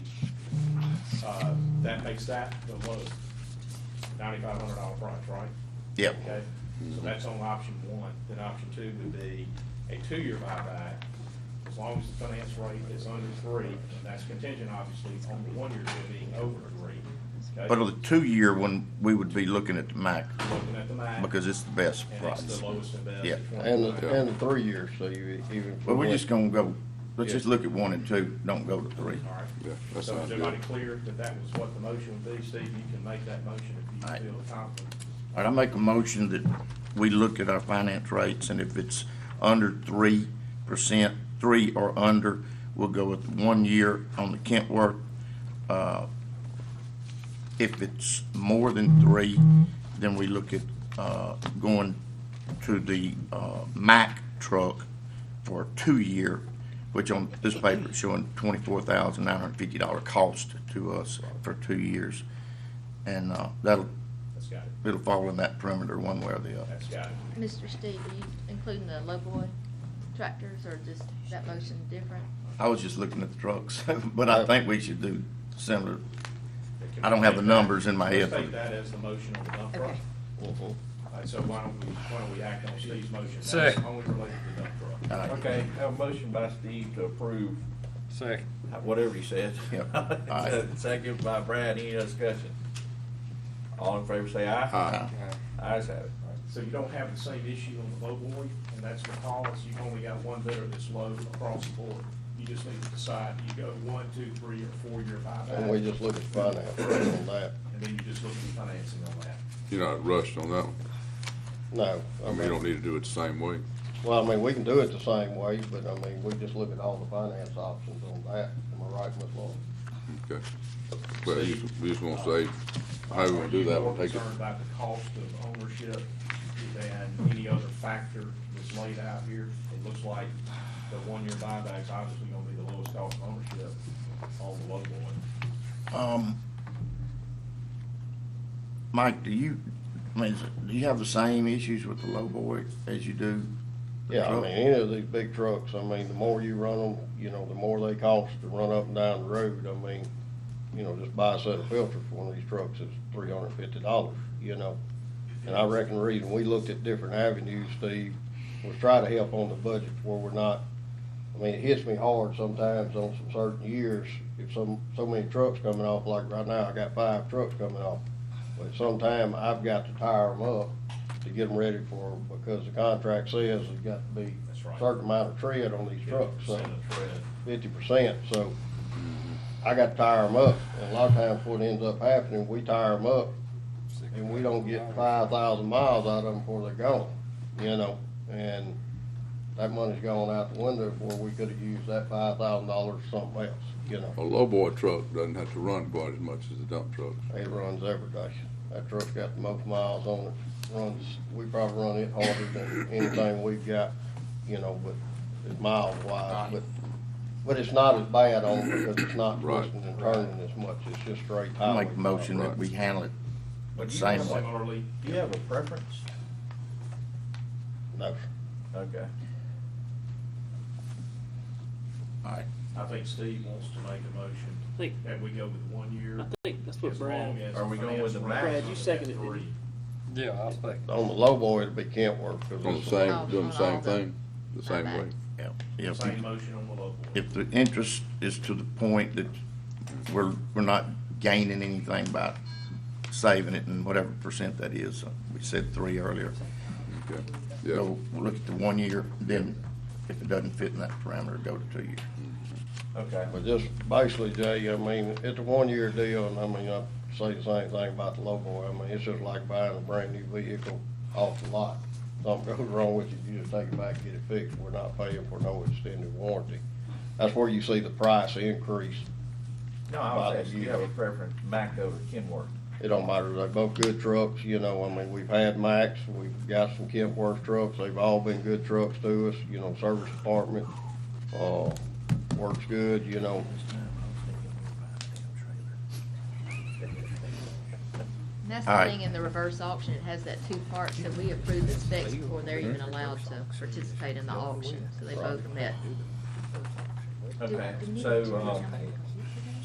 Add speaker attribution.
Speaker 1: Uh, that makes that the lowest, ninety-five hundred dollar price, right?
Speaker 2: Yep.
Speaker 1: Okay, so that's on option one, then option two would be a two-year buyback, as long as the finance rate is under three, and that's contingent, obviously, on the one year being over three. okay?
Speaker 2: But on the two-year one, we would be looking at the max,
Speaker 1: Looking at the math,
Speaker 2: because it's the best
Speaker 1: and
Speaker 2: price.
Speaker 1: it's the lowest and best.
Speaker 2: Yeah.
Speaker 1: it's one
Speaker 3: And, the-
Speaker 1: year.
Speaker 3: and the three years, so you even.
Speaker 2: But we're just gonna go, let's
Speaker 1: Yeah.
Speaker 2: just look at one and two, don't go to three.
Speaker 1: All right.
Speaker 4: Yeah, that
Speaker 1: So is
Speaker 4: sounds
Speaker 1: everybody
Speaker 4: good.
Speaker 1: clear that that was what the motion would be? Steve, you can make that motion
Speaker 2: All
Speaker 1: if
Speaker 2: right.
Speaker 1: you feel confident.
Speaker 2: All right, I make a motion that we look at our finance rates, and if it's under three percent, three or under, we'll go with one year on the Kentworth. Uh, If it's more than three, then we look at, uh, going to the, uh, Mack truck for a two-year, which on this paper is showing twenty-four thousand nine hundred fifty dollar cost to us for two years. And, uh, that'll
Speaker 1: That's got it.
Speaker 2: it'll fall in that perimeter one way or the other.
Speaker 1: That's got it.
Speaker 5: Mr. Steve, are you including the lowboy tractors or just that motion different?
Speaker 2: I was just looking at the trucks, but I think we should do similar.
Speaker 1: Can we
Speaker 2: I don't have
Speaker 1: take
Speaker 2: the
Speaker 1: that?
Speaker 2: numbers in my
Speaker 1: Let's
Speaker 2: head.
Speaker 1: take that as the motion on the dump truck.
Speaker 5: Okay.
Speaker 1: All right, so why don't we, why don't we act on Steve's motion? That's
Speaker 6: Second.
Speaker 1: Only related to the dump truck.
Speaker 2: All right.
Speaker 4: Okay, have a motion by Steve to approve,
Speaker 6: Second.
Speaker 4: whatever he said.
Speaker 2: Yep. Aye.
Speaker 4: Second by Brad, any discussion? All in favor say aye. Aye. Ayes have it.
Speaker 1: So you don't have the same issue on the low boy, and that's because you've only got one bidder that's low across the board. You just need to decide, do you go one, two, three, or four-year
Speaker 3: And we
Speaker 1: buyback?
Speaker 3: just look at finance on that.
Speaker 1: And then you just look at financing on that.
Speaker 7: You're not rushed on that one.
Speaker 3: No,
Speaker 7: I
Speaker 3: I
Speaker 7: mean, you don't
Speaker 3: mean,
Speaker 7: need to do it the same way.
Speaker 3: well, I mean, we can do it the same way, but I mean, we just look at all the finance options on that. Am I right, Ms. Laura?
Speaker 7: Okay. But you just, we just gonna say, how we gonna do that, we'll take
Speaker 1: Are you more
Speaker 7: it.
Speaker 1: concerned about the cost of ownership than any other factor that's laid out here? It looks like the one-year buyback's obviously gonna be the lowest cost of ownership on the low boy.
Speaker 2: Um, Mike, do you, I mean, is it- do you have the same issues with the lowboy as you do? the
Speaker 3: Yeah, I
Speaker 2: truck?
Speaker 3: mean, any of these big trucks, I mean, the more you run them, you know, the more they cost to run up and down the road. I mean, you know, just buy a set of filters for one of these trucks is three hundred and fifty dollars, you know? And I reckon the reason we looked at different avenues, Steve, was try to help on the budget where we're not, I mean, it hits me hard sometimes on some certain years, if some, so many trucks coming off, like right now, I got five trucks coming off. But sometime I've got to tire them up to get them ready for, 'em because the contract says there's got to be
Speaker 1: That's right.
Speaker 3: a certain amount of tread on these trucks, so
Speaker 1: Percent of tread.
Speaker 3: fifty percent, so I got to tire them up. And a lot of times what ends up happening, we tire them up and we don't get five thousand miles out of them before they're gone, you know? And that money's gone out the window where we could have used that five thousand dollars for something else, you know?
Speaker 7: A lowboy truck doesn't have to run quite as much as a dump truck.
Speaker 3: It runs every day. That truck's got the most miles on it, runs, we probably run it harder than anything we've got, you know, but it's mile wise, but, but it's not as bad on it because it's not
Speaker 7: Right.
Speaker 3: twisting and turning as much, it's just straight
Speaker 2: I
Speaker 3: highway.
Speaker 2: make a motion that we handle it
Speaker 4: But do you
Speaker 2: same
Speaker 4: have a-
Speaker 2: way.
Speaker 1: Similarly,
Speaker 4: Do you have a preference?
Speaker 3: No,
Speaker 4: Okay.
Speaker 1: I think Steve wants to make a motion
Speaker 8: Think-
Speaker 1: that we go with one year.
Speaker 8: I think that's what
Speaker 1: As long
Speaker 8: Brad,
Speaker 1: as.
Speaker 4: Are we going with the
Speaker 1: finance
Speaker 4: max?
Speaker 1: rate
Speaker 8: Brad, you
Speaker 1: is
Speaker 8: seconded it,
Speaker 1: at
Speaker 8: didn't
Speaker 1: three.
Speaker 6: Yeah, I'll second.
Speaker 3: on the low boy, it'd be Kentworth. 'cause
Speaker 7: On the
Speaker 3: it's-
Speaker 7: same, doing the
Speaker 5: On all
Speaker 7: same
Speaker 5: the
Speaker 7: thing, the same way.
Speaker 2: Yeah, if,
Speaker 1: Same motion on the low boy.
Speaker 2: if the interest is to the point that we're, we're not gaining anything by saving it and whatever percent that is, uh, we said three earlier.
Speaker 7: Okay. Yeah,
Speaker 2: go, look at the one year, then if it doesn't fit in that parameter, go to two year.
Speaker 4: Okay.
Speaker 3: But just basically, Jay, I mean, it's a one-year deal, and I mean, I say the same thing about the low boy. I mean, it's just like buying a brand-new vehicle off the lot. Something goes wrong with it, you just take it back, and get it fixed. We're not paying for no extended warranty. That's where you see the price increase.
Speaker 4: No, I
Speaker 3: Bother
Speaker 4: was asking, do
Speaker 3: you.
Speaker 4: you have a preference, Mack over Kenworth?
Speaker 3: It don't matter, they're both good trucks, you know, I mean, we've had Max, we've got some Kentworth trucks, they've all been good trucks to us, you know, service department, uh, works good, you know.
Speaker 5: And that's the
Speaker 2: All right.
Speaker 5: thing in the reverse auction, it has that two parts that we approve the specs before they're even allowed to participate in the auction, so they both met.
Speaker 4: Okay, so, um,